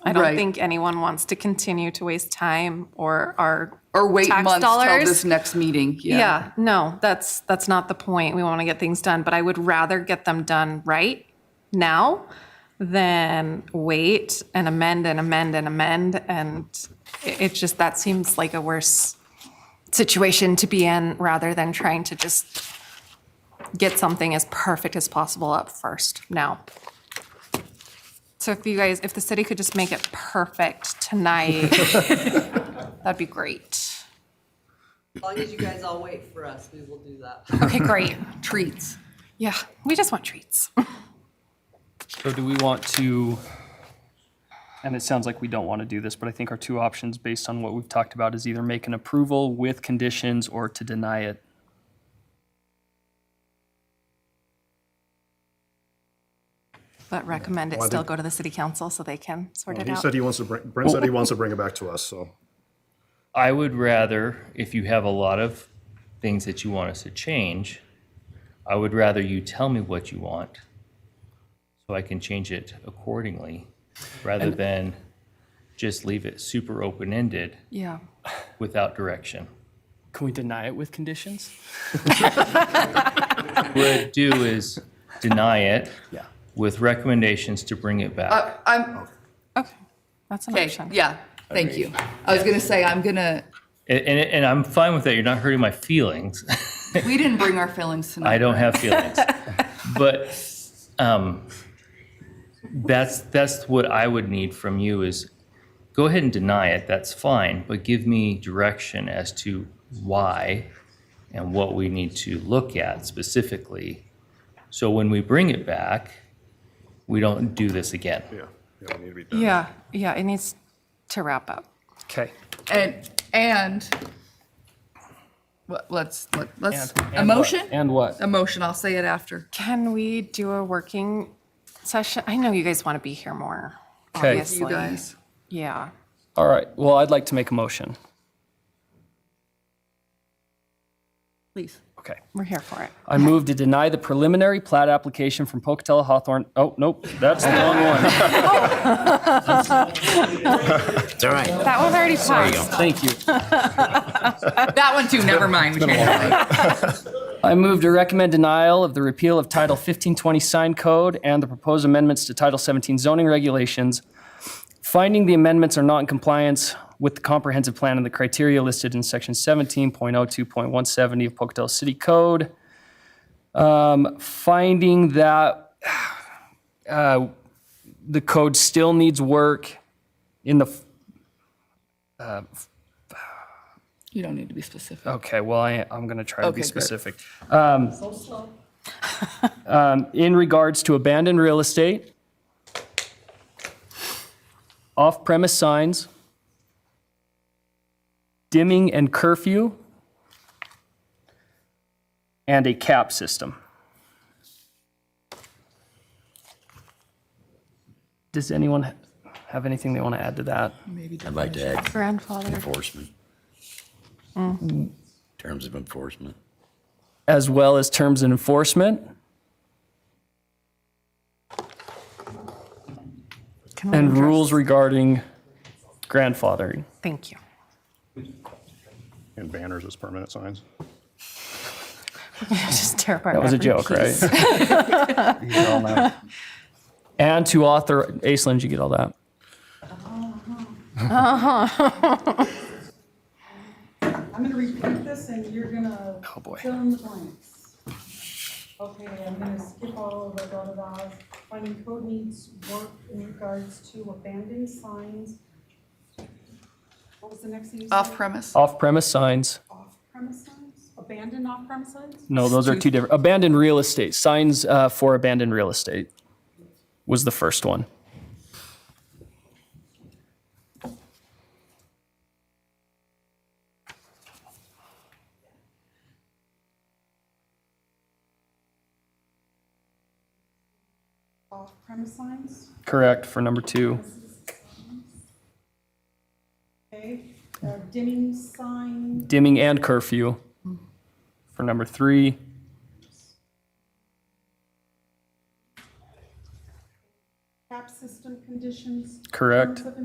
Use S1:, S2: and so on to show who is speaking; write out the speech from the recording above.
S1: I don't
S2: Right.
S1: think anyone wants to continue to waste time or our
S2: Or wait
S1: tax
S2: months till
S1: dollars.
S2: this next meeting, yeah.
S1: Yeah, no, that's that's not the point. We want to get things done, but I would rather get them done right now than wait and amend and amend and amend and it, it just that seems like a worse situation to be in rather than trying to just get something as perfect as possible up first now. So if you guys, if the city could just make it perfect tonight, that'd be great.
S3: As long as you guys all wait for us, we will do that.
S1: Okay, great.
S2: Treats.
S1: Yeah, we just want treats.
S4: So do we want to, and it sounds like we don't want to do this, but I think our two options based on what we've talked about is either make an approval with conditions or to deny it.
S1: But recommend it
S5: Well, I
S1: still
S5: think-
S1: go to the city council so they can sort it
S5: He
S1: out.
S5: said he wants to bring, Brent said he wants to bring it back to us, so.
S6: I would rather, if you have a lot of things that you want us to change, I would rather you tell me what you want so I can change it accordingly rather than just leave it super open ended
S1: Yeah.
S6: without direction.
S4: Can we deny it with conditions?
S6: What I'd do is deny it
S4: Yeah.
S6: with recommendations to bring it back.
S2: Uh, I'm,
S1: Okay, that's an
S2: okay,
S1: option.
S2: yeah, thank you. I was gonna say, I'm gonna,
S6: And, and, and I'm fine with that. You're not hurting my feelings.
S2: we didn't bring our feelings
S6: I
S2: tonight.
S6: don't have feelings. but um, that's that's what I would need from you is go ahead and deny it. That's fine, but give me direction as to why and what we need to look at specifically. So when we bring it back, we don't do this again.
S5: Yeah, yeah, we need to be done.
S1: Yeah, yeah, it needs to wrap up.
S4: Okay.
S2: And, and, let- let's, let- let's,
S4: And-
S2: a
S4: and what?
S2: motion?
S4: And what?
S2: A motion, I'll say it after.
S1: Can we do a working session? I know you guys want to be here more,
S4: Okay. You
S1: obviously.
S2: You guys,
S1: Yeah.
S4: All right. Well, I'd like to make a motion.
S2: please.
S4: Okay.
S1: We're here for it.
S4: I move to deny the preliminary plat application from Pocatello Hawthorne. Oh, nope, that's the wrong one.
S7: It's all right.
S1: That one already passed.
S4: Thank you.
S2: That one too, never mind. we can't do it.
S4: I move to recommend denial of the repeal of Title 1520 Sign Code and the proposed amendments to Title 17 zoning regulations, finding the amendments are not in compliance with the comprehensive plan and the criteria listed in Section 17.02.170 of Pocatello City Code. Um, Finding that uh, the code still needs work in the, f-
S2: You don't need to be specific.
S4: okay, well, I, I'm going to try to
S2: Okay,
S4: be
S2: good.
S4: specific. Um, in regards to abandoned real estate, off-premise signs, dimming and curfew, and a cap system. Does anyone ha- have anything they want to add to that?
S7: I'd like to add
S1: Grandfather.
S7: enforcement. Terms of enforcement.
S4: As well as terms and enforcement?
S1: Can we
S4: And
S1: address-
S4: rules regarding grandfathering.
S1: Thank you.
S5: And banners as permanent signs.
S1: Just tear apart.
S4: That was a
S1: every
S4: joke,
S1: piece.
S4: right? You all know. And to author, Aislinn, did you get all that?
S8: I'm gonna repeat this and you're gonna
S4: Oh, boy.
S8: fill in the blanks. Okay, I'm gonna skip all of the blah blah blah. Finding code needs work in regards to abandoned signs. What was the next thing you said?
S2: Off-premise?
S4: Off-premise signs.
S8: Off-premise signs? Abandoned off-premise signs?
S4: No, those are two different. Abandoned real estate, signs uh, for abandoned real estate was the first one.
S8: Off-premise signs,
S4: Correct for number two.
S8: okay. Uh, Dimming sign,
S4: Dimming and curfew for number three.
S8: cap system conditions.
S4: Correct.
S8: terms of